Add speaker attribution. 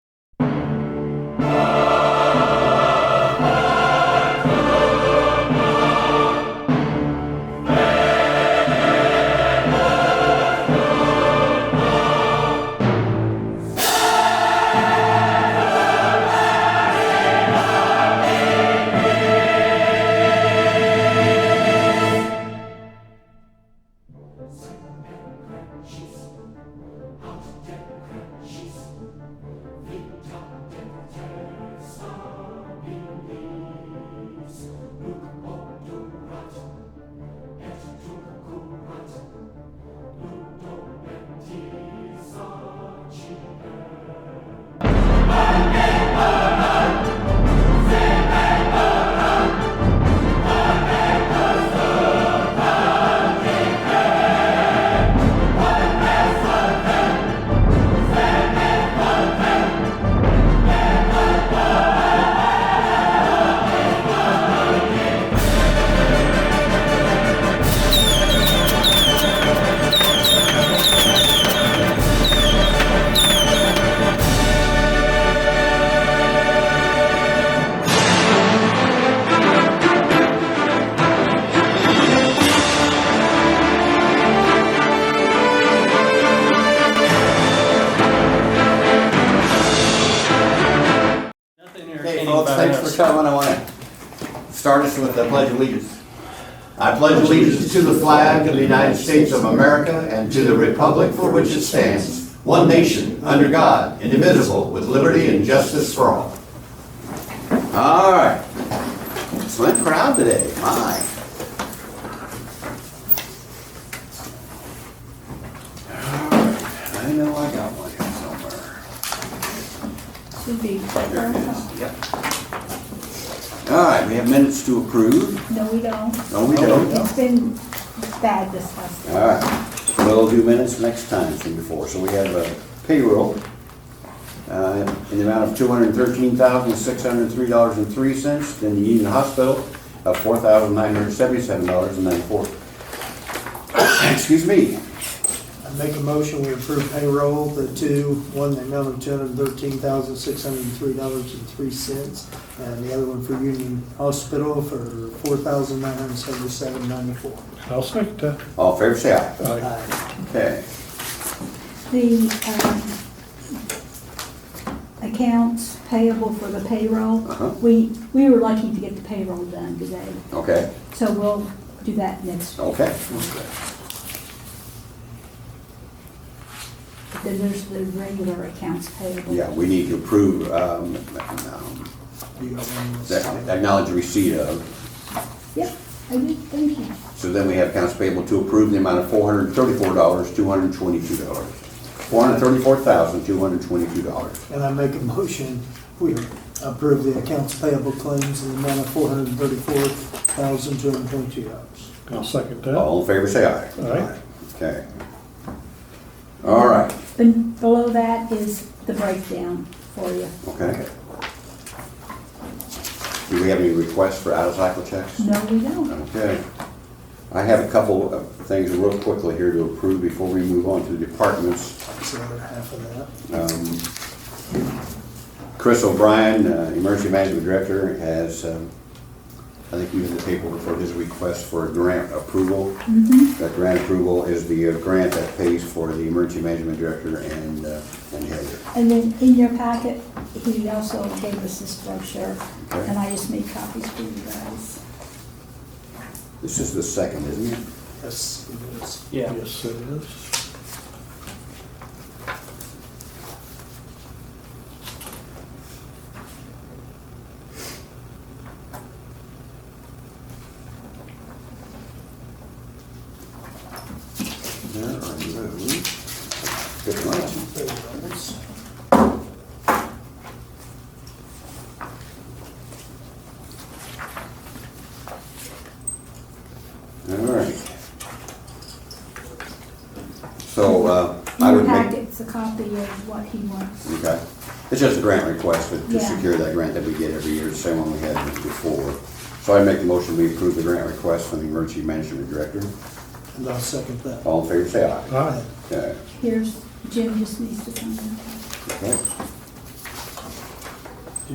Speaker 1: Well, thanks for coming. I want to start us with the pledge of allegiance. I pledge allegiance to the flag of the United States of America and to the republic for which it stands, one nation, under God, indivisible, with liberty and justice for all. All right. Slim crowd today, my. All right. I know I got one here somewhere.
Speaker 2: Should be.
Speaker 1: Yep. All right, we have minutes to approve.
Speaker 2: No, we don't.
Speaker 1: No, we don't.
Speaker 2: It's been bad this last.
Speaker 1: All right, we'll do minutes next time from before. So we have a payroll uh, in the amount of two hundred thirteen thousand, six hundred three dollars and three cents. Then the Union Hospital of four thousand, nine hundred seventy-seven dollars and ninety-four. Excuse me.
Speaker 3: I make a motion, we approve payroll, the two, one, the amount of two hundred and thirteen thousand, six hundred and three dollars and three cents, and the other one for Union Hospital for four thousand, nine hundred and seventy-seven, ninety-four.
Speaker 4: I'll second that.
Speaker 1: All fair say aye.
Speaker 4: Aye.
Speaker 1: Okay.
Speaker 2: The, um, accounts payable for the payroll.
Speaker 1: Uh-huh.
Speaker 2: We, we were lucky to get the payroll done today,
Speaker 1: Okay,
Speaker 2: so we'll do that next.
Speaker 1: okay.
Speaker 2: Then there's the regular accounts payable.
Speaker 1: Yeah, we need to approve, um, um,
Speaker 3: Do you have one?
Speaker 1: acknowledge receipt of
Speaker 2: Yep, I did, thank you.
Speaker 1: So then we have accounts payable to approve in the amount of four hundred thirty-four dollars, two hundred twenty-two dollars. Four hundred thirty-four thousand, two hundred twenty-two dollars.
Speaker 3: And I make a motion, we approve the accounts payable claims in the amount of four hundred and thirty-four thousand, two hundred and twenty-two dollars.
Speaker 4: I'll second that.
Speaker 1: All in favor, say aye.
Speaker 4: Aye.
Speaker 1: Okay. All right,
Speaker 2: And below that is the breakdown for you.
Speaker 1: okay. Do we have any requests for out-of-cycle checks?
Speaker 2: No, we don't.
Speaker 1: Okay. I have a couple of things real quickly here to approve before we move on to the departments.
Speaker 3: That's the other half of that.
Speaker 1: Um, Chris O'Brien, uh, Emergency Management Director, has, um, I think you have the paperwork for his request for a grant approval.
Speaker 2: Mm-hmm.
Speaker 1: That grant approval is the uh, grant that pays for the Emergency Management Director and, uh, and Heather.
Speaker 2: And then in your packet, he also gave us this brochure,
Speaker 1: Okay.
Speaker 2: and I just made copies for you guys.
Speaker 1: This is the second, isn't it?
Speaker 3: Yes, it is.
Speaker 5: Yeah.
Speaker 4: Yes, it is.
Speaker 1: There are those. Good one.
Speaker 3: Payrolls.
Speaker 1: All right. So uh,
Speaker 2: In
Speaker 1: I
Speaker 2: your
Speaker 1: would make,
Speaker 2: packet's a copy of what he wants.
Speaker 1: okay, it's just a grant request to- to
Speaker 2: Yeah.
Speaker 1: secure that grant that we get every year, the same one we had before. So I make the motion, we approve the grant request from the Emergency Management Director.
Speaker 3: And I'll second that.
Speaker 1: All in favor, say aye.
Speaker 4: Aye.
Speaker 1: Okay.
Speaker 2: Here's, Jim just needs to come in.
Speaker 1: Okay.